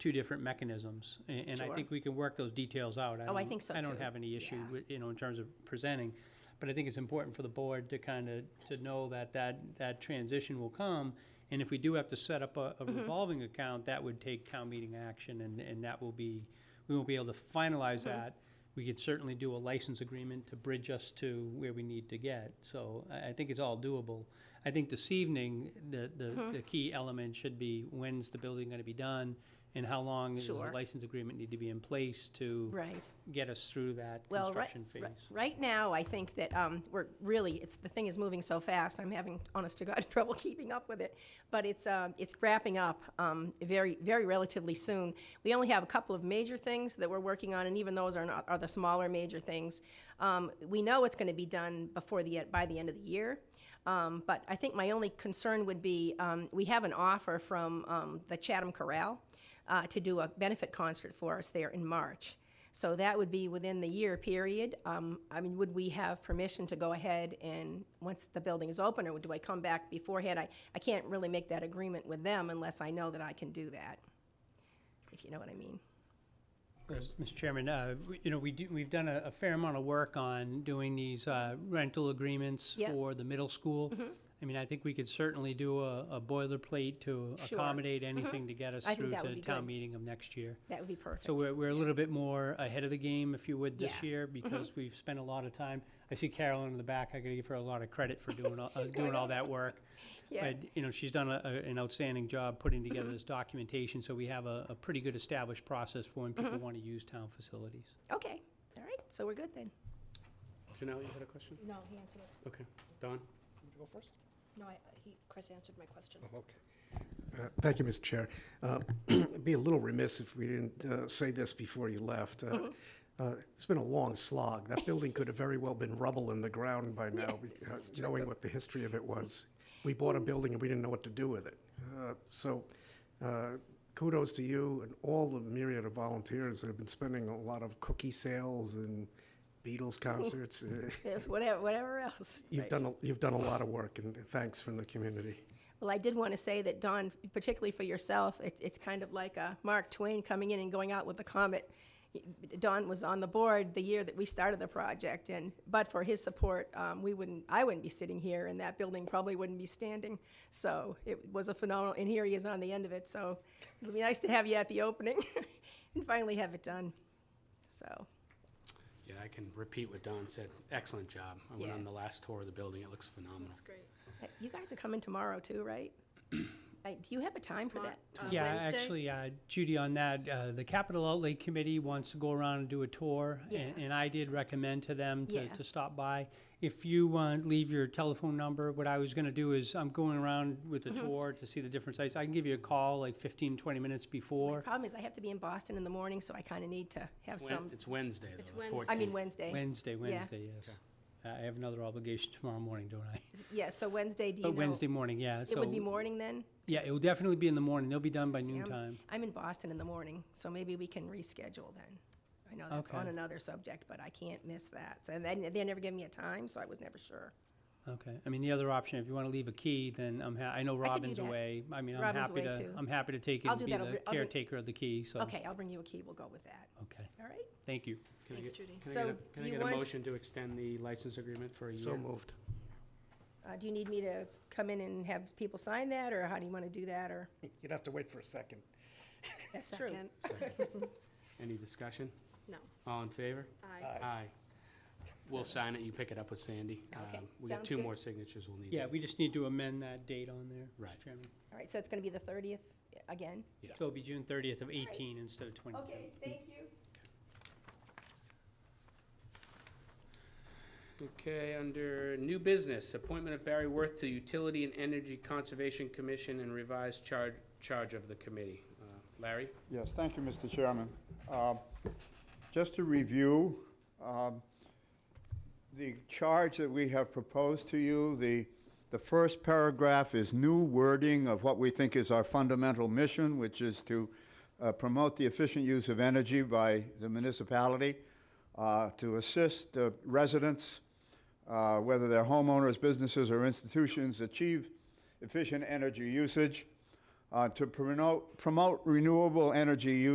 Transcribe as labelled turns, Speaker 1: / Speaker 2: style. Speaker 1: two different mechanisms. a- And, I
Speaker 2: Sure.
Speaker 1: think we can work those details out.
Speaker 2: Oh, I
Speaker 1: don't-
Speaker 2: think so,
Speaker 1: I don't
Speaker 2: too.
Speaker 1: have any issue
Speaker 2: Yeah.
Speaker 1: with, you know, in terms of presenting. But I think it's important for the board to kind of, to know that that, that transition will come. And if we do have to set up a a
Speaker 2: Mm-hmm.
Speaker 1: revolving account, that would take town meeting action and, and that will be, we won't be able to finalize that. We could certainly do a license agreement to bridge us to where we need to get. So I, I think it's all doable. I think this evening, the,
Speaker 2: Hmm.
Speaker 1: the, the key element should be when's the building gonna be done? And how long does the
Speaker 2: Sure.
Speaker 1: license agreement need to be in place to
Speaker 2: Right.
Speaker 1: get us through that
Speaker 2: Well, right,
Speaker 1: construction phase?
Speaker 2: ri- right now, I think that um, we're really, it's, the thing is moving so fast, I'm having, honest to God, trouble keeping up with it. But it's, um, it's wrapping up um, very, very relatively soon. We only have a couple of major things that we're working on, and even those are not, are the smaller major things. Um, We know it's going to be done before the, e- by the end of the year. Um, But I think my only concern would be, um, we have an offer from um, the Chatham Corral uh, to do a benefit concert for us there in March. So that would be within the year period. Um, I mean, would we have permission to go ahead and, once the building is open, or do I come back beforehand? I, I can't really make that agreement with them unless I know that I can do that, if you know what I mean.
Speaker 1: Mr. Chairman, uh, we- you know, we do, we've done a a fair amount of work on doing these uh, rental agreements
Speaker 2: Yeah. Mm-hmm.
Speaker 1: for the middle school. I mean, I think we could certainly do a a boilerplate to
Speaker 2: Sure. Mm-hmm.
Speaker 1: accommodate anything to get us
Speaker 2: I think
Speaker 1: through
Speaker 2: that would
Speaker 1: to
Speaker 2: be
Speaker 1: town
Speaker 2: good.
Speaker 1: meeting of next year.
Speaker 2: That would be perfect.
Speaker 1: So we're, we're a little bit more ahead of the game, if you would, this
Speaker 2: Yeah. Mm-hmm.
Speaker 1: year, because we've spent a lot of time. I see Carolyn in the back, I gotta give her a lot of credit for doing, all- uh, doing
Speaker 2: going
Speaker 1: all that work.
Speaker 2: Yeah, Mm-hmm.
Speaker 1: But, you know, she's done a, a- an outstanding job putting together this documentation, so we have a, a pretty good established process for when
Speaker 2: Mm-hmm.
Speaker 1: people wanna use town facilities.
Speaker 2: okay, all right, so we're good then.
Speaker 3: Janelle, you had a question?
Speaker 4: No, he answered it.
Speaker 3: Okay. Don?
Speaker 5: Go first?
Speaker 4: No, I, he, Chris answered my question.
Speaker 3: Oh,
Speaker 5: Okay. Uh, Thank you, Mr. Chair. Uh, I'd Be a little remiss if we didn't uh, say this before you left. Uh, uh, It's been a long slog. That building could have very well been rubble in the ground by now, uh, knowing what the history of it was. We bought a building and we didn't know what to do with it. Uh, So uh, kudos to you and all the myriad of volunteers that have been spending a lot of cookie sales and Beatles concerts. Uh,
Speaker 2: Yeah, Whatever, whatever else.
Speaker 5: You've
Speaker 2: right.
Speaker 5: done, a- you've done a lot of work, and thanks from the community.
Speaker 2: Well, I did want to say that, Don, particularly for yourself, it's, it's kind of like uh, Mark Twain coming in and going out with the comet. Don was on the board the year that we started the project, and but for his support, um, we wouldn't, I wouldn't be sitting here, and that building probably wouldn't be standing. So it was a phenomenal, and here he is on the end of it. So it'll be nice to have you at the opening and finally have it done. So,
Speaker 3: Yeah, I can repeat what Don said. Excellent job. I went
Speaker 2: Yeah.
Speaker 3: on the last tour of the building. It looks phenomenal.
Speaker 4: That's great.
Speaker 2: uh, you guys are coming tomorrow too, right? Uh, Do you have a time for that?
Speaker 4: Uh,
Speaker 1: Yeah,
Speaker 4: Wednesday?
Speaker 1: actually, uh, Judy, on that, uh, the Capital Outlay Committee wants to go around and do a tour, a-
Speaker 2: Yeah.
Speaker 1: and I did recommend to them to,
Speaker 2: Yeah.
Speaker 1: to stop by. If you uh, leave your telephone number, what I was gonna do is, I'm going around with
Speaker 2: Mm-hmm.
Speaker 1: a tour to see the different sites. I can give you a call like 15, 20 minutes
Speaker 2: My
Speaker 1: before
Speaker 2: problem is I have to be in Boston in the morning, so I kind of need to have
Speaker 3: Wen-
Speaker 2: some,
Speaker 3: It's Wednesday, though.
Speaker 4: It's
Speaker 3: the
Speaker 4: Wednesday.
Speaker 2: I mean
Speaker 3: 14th.
Speaker 2: Wednesday.
Speaker 1: Wednesday, Wednesday, yes. I have another obligation tomorrow morning, don't I?
Speaker 2: Yeah, so Wednesday, do you know?
Speaker 1: But oh, Wednesday morning, yeah,
Speaker 2: It
Speaker 1: so.
Speaker 2: would be morning then?
Speaker 1: Yeah, it will definitely be in the morning. They'll be done by
Speaker 2: See,
Speaker 1: noon
Speaker 2: I'm-
Speaker 1: time.
Speaker 2: I'm in Boston in the morning, so maybe we can reschedule then. I know that's on
Speaker 1: Okay.
Speaker 2: another subject, but I can't miss that. So then, they never gave me a time, so I was never sure.
Speaker 1: Okay, I mean, the other option, if you want to leave a key, then I'm ha- I know
Speaker 2: could do
Speaker 1: Robin's
Speaker 2: that.
Speaker 1: away. I mean, I'm
Speaker 2: Robin's
Speaker 1: happy
Speaker 2: away,
Speaker 1: to,
Speaker 2: too.
Speaker 1: I'm happy to take it
Speaker 2: I'll
Speaker 1: and
Speaker 2: do
Speaker 1: be
Speaker 2: that. I'll
Speaker 1: the
Speaker 2: br- I'll bring-
Speaker 1: caretaker of the key, so.
Speaker 2: Okay, I'll bring you a key, we'll go with that.
Speaker 1: Okay,
Speaker 2: All right?
Speaker 1: thank you.
Speaker 3: Can I
Speaker 4: Thanks,
Speaker 3: get-
Speaker 4: Judy.
Speaker 3: Can I
Speaker 2: So
Speaker 3: get a-
Speaker 2: do
Speaker 3: can I
Speaker 2: you
Speaker 3: get a
Speaker 2: want-
Speaker 3: motion to extend the license agreement for a year?
Speaker 5: So moved.
Speaker 2: Uh, Do you need me to come in and have people sign that, or how do you want to do that, or?
Speaker 5: You'd have to wait for a second.
Speaker 2: That's true.
Speaker 4: Second.
Speaker 3: Second. Any discussion?
Speaker 4: No,
Speaker 3: All in favor?
Speaker 4: I,
Speaker 3: Aye. We'll sign it. You pick it up with Sandy.
Speaker 2: Okay,
Speaker 3: Um, We got
Speaker 2: sounds
Speaker 3: two
Speaker 2: good.
Speaker 3: more signatures we'll need.
Speaker 1: Yeah,
Speaker 3: to-
Speaker 1: we just need to amend that date on there,
Speaker 3: Right.
Speaker 1: Mr. Chairman.
Speaker 2: All right, so it's going to be the 30th again?
Speaker 1: So it'll be June thirtieth of eighteen instead of twenty.
Speaker 2: Okay, thank you.
Speaker 3: Okay, under new business, appointment of Barry Worth to Utility and Energy Conservation Commission and revised charge, charge of the committee. Uh, Larry?
Speaker 6: Yes, thank you, Mr. Chairman. Uh, Just to review, um, the charge that we have proposed to you, the, the first paragraph is new wording of what we think is our fundamental mission, which is to uh, promote the efficient use of energy by the municipality, uh, to assist the residents, uh, whether they're homeowners, businesses, or institutions, achieve efficient energy usage, uh, to promote, promote renewable energy use.